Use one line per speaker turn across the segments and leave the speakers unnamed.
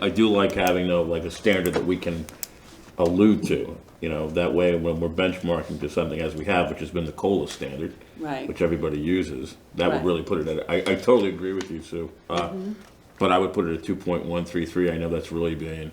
I do like having though, like a standard that we can allude to, you know, that way when we're benchmarking to something as we have, which has been the COLA standard.
Right.
Which everybody uses, that would
Right. Mm-hmm.
really put it at, I, I totally agree with you, Sue. Uh, But I would put it at two point one three three, I know that's really being,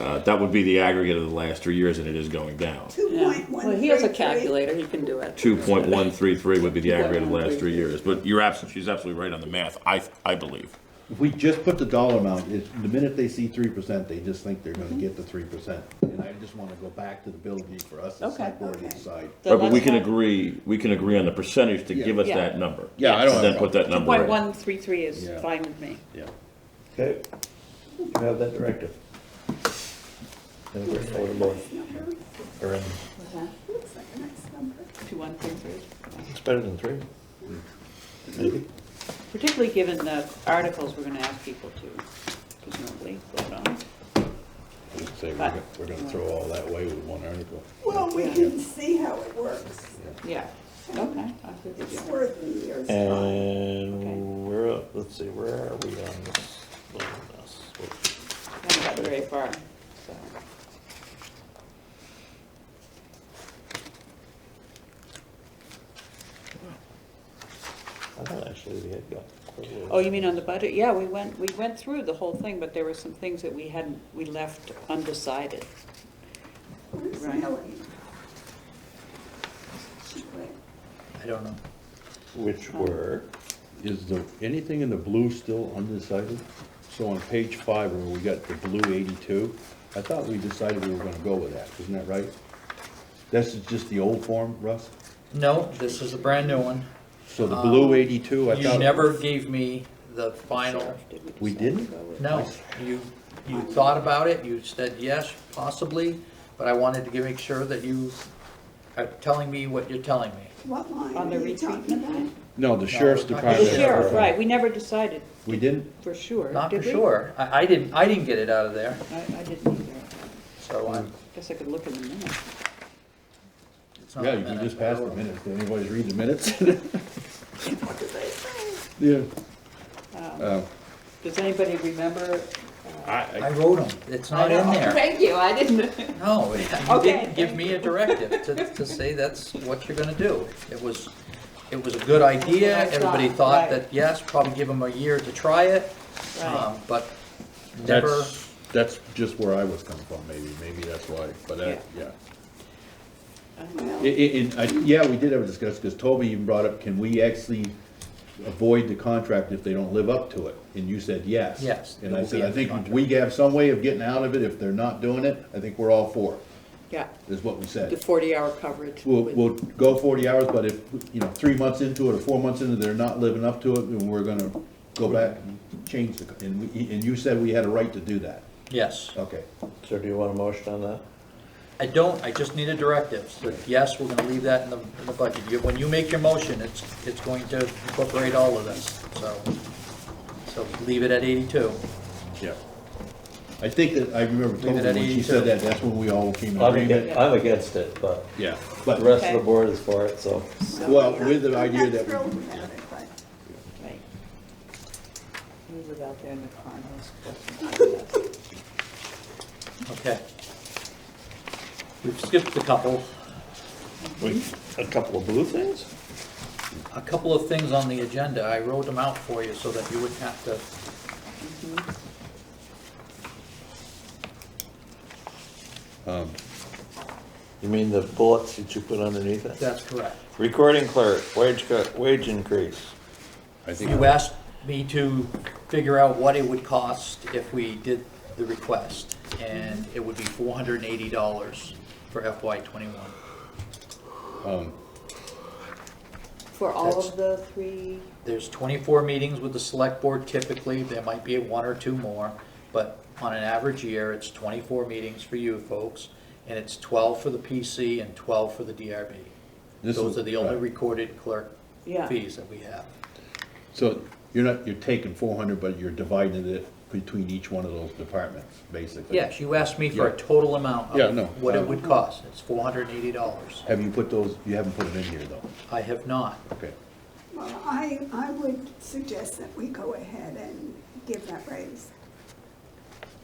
uh, that would be the aggregate of the last three years and it is going down.
Yeah.
2.133.
Well, he has a calculator, he can do it.
Two point one three three would be the aggregate of the last three years, but you're absolutely, she's absolutely right on the math, I, I believe.
If we just put the dollar amount, it, the minute they see three percent, they just think they're gonna get the three percent. And I just wanna go back to the ability for us, the
Okay.
select board to
Okay.
decide.
So
Right, but we
that's
can
not-
agree, we can agree on the percentage to give us
Yeah.
that number.
Yeah, I
And
don't have a
then put that number
Point
in.
one three three is
Yeah.
fine with me.
Yeah.
Okay, you have that directive. And we're affordable
Number.
around,
Looks like a nice number.
Two one three three.
it's better than three. Maybe.
Particularly given the articles we're gonna ask people to presumably vote on.
Say, we're
But-
gonna, we're gonna throw all that away with one article.
Well, we can see how it works.
Yeah, okay. I'll give it
It's
to you.
worth the year's
Uh,
time.
And we're, up- let's see, where are we on this? Well, that's what-
I Haven't gotten very far, so.
I thought actually we had got quite a little.
Oh, you mean on the budget? Yeah, we went, we went through the whole thing, but there were some things that we hadn't, we left undecided.
Where's
Right.
Melanie? She quit.
I don't know.
Which
Oh.
were,
Is the, anything in the blue still undecided? So on page five, where we got the blue eighty-two, I thought we decided we were gonna go with that, isn't that right? This is just the old form, Russ?
No, this is a brand new one.
So the blue eighty-two, I
Uh, You
thought.
never gave me the final,
Sheriff, did
We
decide to
didn't?
go with-
no, you, you thought about it, you said yes, possibly, but I wanted to make sure that you are telling me what you're telling me.
What line
On the
are you talking
retreatment
about?
line?
No, the sheriff's
No, we're not-
department.
The sheriff, right, we never decided
We didn't?
for sure,
Not for
did we?
sure. I, I didn't, I didn't get it out of there,
I, I didn't either.
so I'm.
Guess I could look in the minutes.
it's not
Yeah,
a
you can
minute,
just
but I
pass the
will-
minutes, did anybody read the minutes?
What did they say?
Yeah. Um,
Does anybody remember?
I wrote them, it's not in there.
Thank you, I didn't.
No, you
Okay.
didn't give me a directive to, to say that's what you're gonna do. It was, it was a good idea,
That's what I
everybody
thought,
thought
right.
that, yes, probably give them a year to try it,
Right.
um, but never,
That's, that's just where I was coming from, maybe, maybe that's why, but that, yeah. I-
Well,
I- and I, yeah, we did have a discussion, because Toby even brought up, can we actually avoid the contract if they don't live up to it? And you said yes.
Yes,
And
it
I
will
said,
be
I
in the
think if
contract."
we have some way of getting out of it, if they're not doing it, I think we're all for it,
Yeah,
is what we
the
said.
forty hour coverage.
We'll,
with-
we'll go forty hours, but if, you know, three months into it or four months into it, they're not living up to it, then we're gonna go back and change the, co- and, we- and you said we had a right to do that.
yes.
Okay.
so do you want a motion on that?
I don't, I just need a directive, that yes, we're gonna leave that in the, in the budget. You- When you make your motion, it's, it's going to incorporate all of this, so, so leave it at eighty-two.
Yeah. I think that, I remember
Leave it at
Toby, when she
82.
said that, that's when we all came in
I'm
agreement.
against, I'm against it, but
Yeah,
the
but,
rest of the board is for it, so.
well, with the
I'm
idea
not
that we
thrilled about it, but
Right. He was out there in the car and I was questioning.
Okay. We've skipped a couple.
Wait, a couple of blue things?
a couple of things on the agenda, I wrote them out for you so that you wouldn't have to.
You mean the bullets that you put underneath it?
That's correct.
Recording clerk, wage cut, wage increase.
I think
You asked me to figure out what it would cost if we did the request, and it would be four hundred and eighty dollars for FY twenty-one.
For all of the three,
There's twenty-four meetings with the select board typically, there might be one or two more, but on an average year, it's twenty-four meetings for you folks, and it's twelve for the PC and twelve for the DRB.
This
Those
is-
are the only
right.
recorded clerk
Yeah.
fees that we have.
So you're not, you're taking four hundred, but you're dividing it between each one of those departments, basically.
Yes, you asked me for a
Yeah.
total amount
Yeah, no,
of what it
um,
would cost. It's four hundred and eighty dollars.
Have you put those, you haven't put them in here though,
I have not.
okay.
Well, I, I would suggest that we go ahead and give that raise.